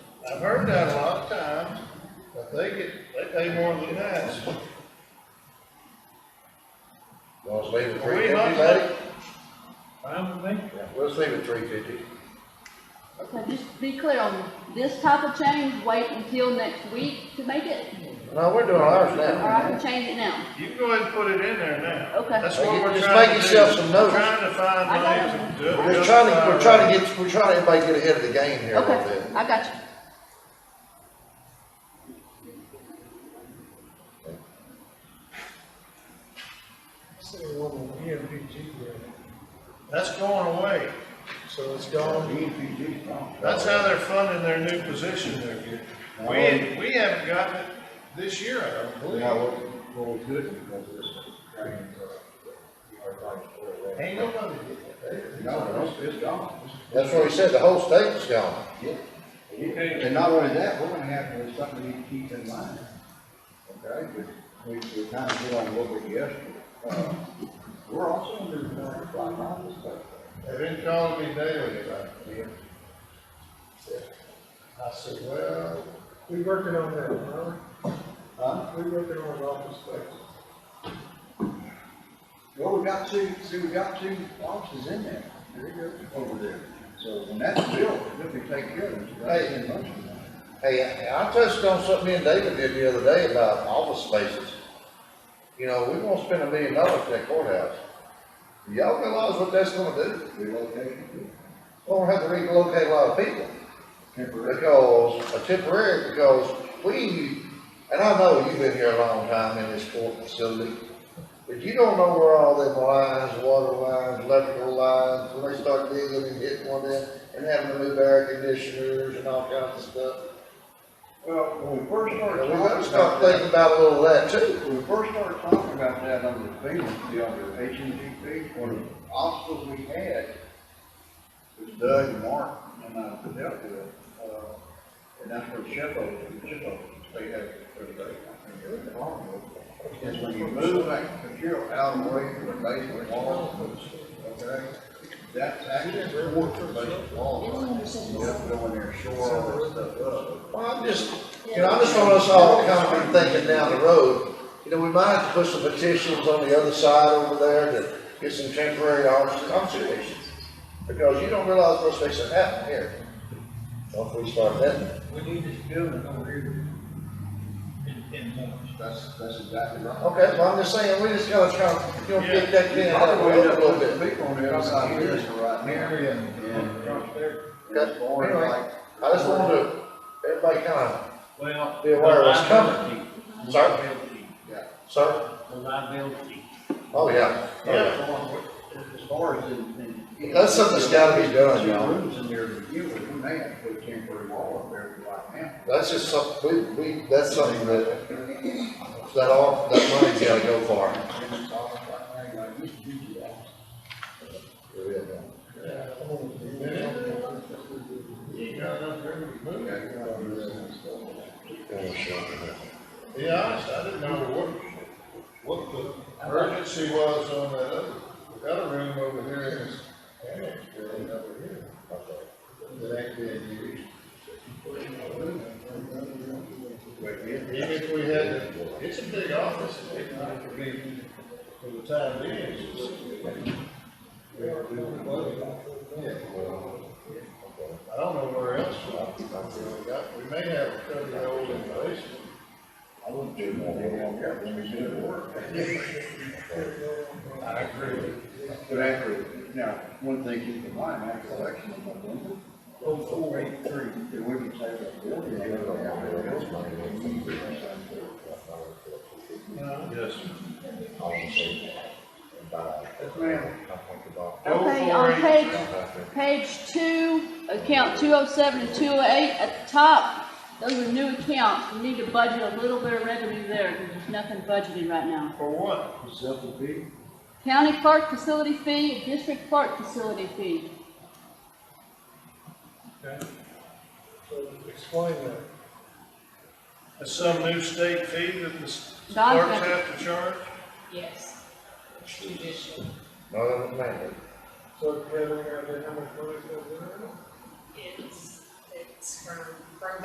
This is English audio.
I've heard that a lot of times, but they get, they pay more than that. Well, let's leave it Are three we fifty, not- buddy. Fine with me. Yeah, Let's leave it three fifty. Now, just be clear on this type of change, wait until next week to make it, No, we're doing ours or I now. can change it now. You can go ahead and put it in there now. Okay. That's what we're Just trying to do. make yourself some notes. Trying to find I got money to do it. We're just trying to, we're trying to get, we're trying to, everybody get ahead of the game here a little Okay, bit. I got you. Say one on EMPG grant, That's going away. so it's gone. That's how they're funding their new position they're getting. We, we haven't gotten it this year, I don't believe. Well, well, we could because of this drain, uh, our right for it. Ain't nobody getting it. No, it's, it's gone. That's what we said, the whole state's gone. Yeah. And not only that, we're gonna have, there's something we need to keep in mind. Okay, we, we kind of hit on what we guessed. Uh, We're also under, uh, five miles, but. They've been calling me daily about it. I said, well, We working on that, huh? Huh? We working on an office space. Well, we got two, see, we got two offices in there, there you go, over there. So when that's built, if we take care of it, that's in motion. Hey, I I touched on something me and David did the other day about office spaces. You know, we won't spend a million dollars for that courthouse. Do Y'all realize what that's gonna do? Relocation, We're gonna have to relocate a lot of people. temporary. because, a temporary, because we, and I know you've been here a long time in this court facility, but you don't know where all them lines, water lines, electrical lines, when they start digging and hitting one in, and having to move air conditioners and all kinds of stuff. Well, when we first started And talking we about gotta start thinking that, about a little of that too. when we first started talking about that on the field, the other H and G field, one of the obstacles we had was Doug and Mark and I dealt with, uh, and that's where Sheffield, Sheffield, they had, everybody, I think, the problem was, is when you move that material out of the way from the basement wall, okay? That's actually where the basement wall, is. you have to go in there, and shore all that stuff up. Well, I'm just, you know, I just want us all kind of thinking down the road. You know, we might have to put some petitions on the other side over there to get some temporary office conservations. Because you don't realize what's fixing to happen here. So if we start that, We need this building over here in ten months. That's, that's exactly right. okay, well, I'm just saying, we just gotta kind of, you know, get that in out of the Probably way a end up little putting bit. people on the other side of this right now. Mary and, Yeah. across there. Okay, anyway, I just want to, everybody kind of, Well. Be aware of what's coming. the liability, Sorry? liability, sir, The liability. oh, yeah. yeah, As far as in, in. That's something that's gotta be done, Two y'all. Rooms in there to begin with, we may have to put a temporary wall up there right now. That's just something, we, we, that's something that, that all, that money's gotta go far. And it's all right now, like, this is huge, yeah. you got enough there to move it. Yeah, sure. Be honest, I didn't know what, what the urgency was on that other. We got a room over here in this annex building over here. That ain't being used. Even if we had, to- it's a big office, it might could be, for the time being, it's just- Yeah. I don't know where else, I've really got, we may have a couple of old in the basement. I wouldn't do more than one, yeah, when we do the work. I agree with you. But after, now, one thing keep in mind, after election, I'm not going to, oh, four, eight, three, then we can take that building. and go down there. Yes. Yes, ma'am. Okay, on page, page two, account two oh seven and two oh eight, at the top, those are new accounts, we need to budget a little bit of revenue there, because there's nothing budgeted right now. For what? Simple people. County clerk facility fee, district clerk facility fee. So explain that. That's some new state fee that the s- Don's clerks got- have to charge? Yes. Judicial, No, no, no. So, Kevin, how much money is that? it's, it's from, from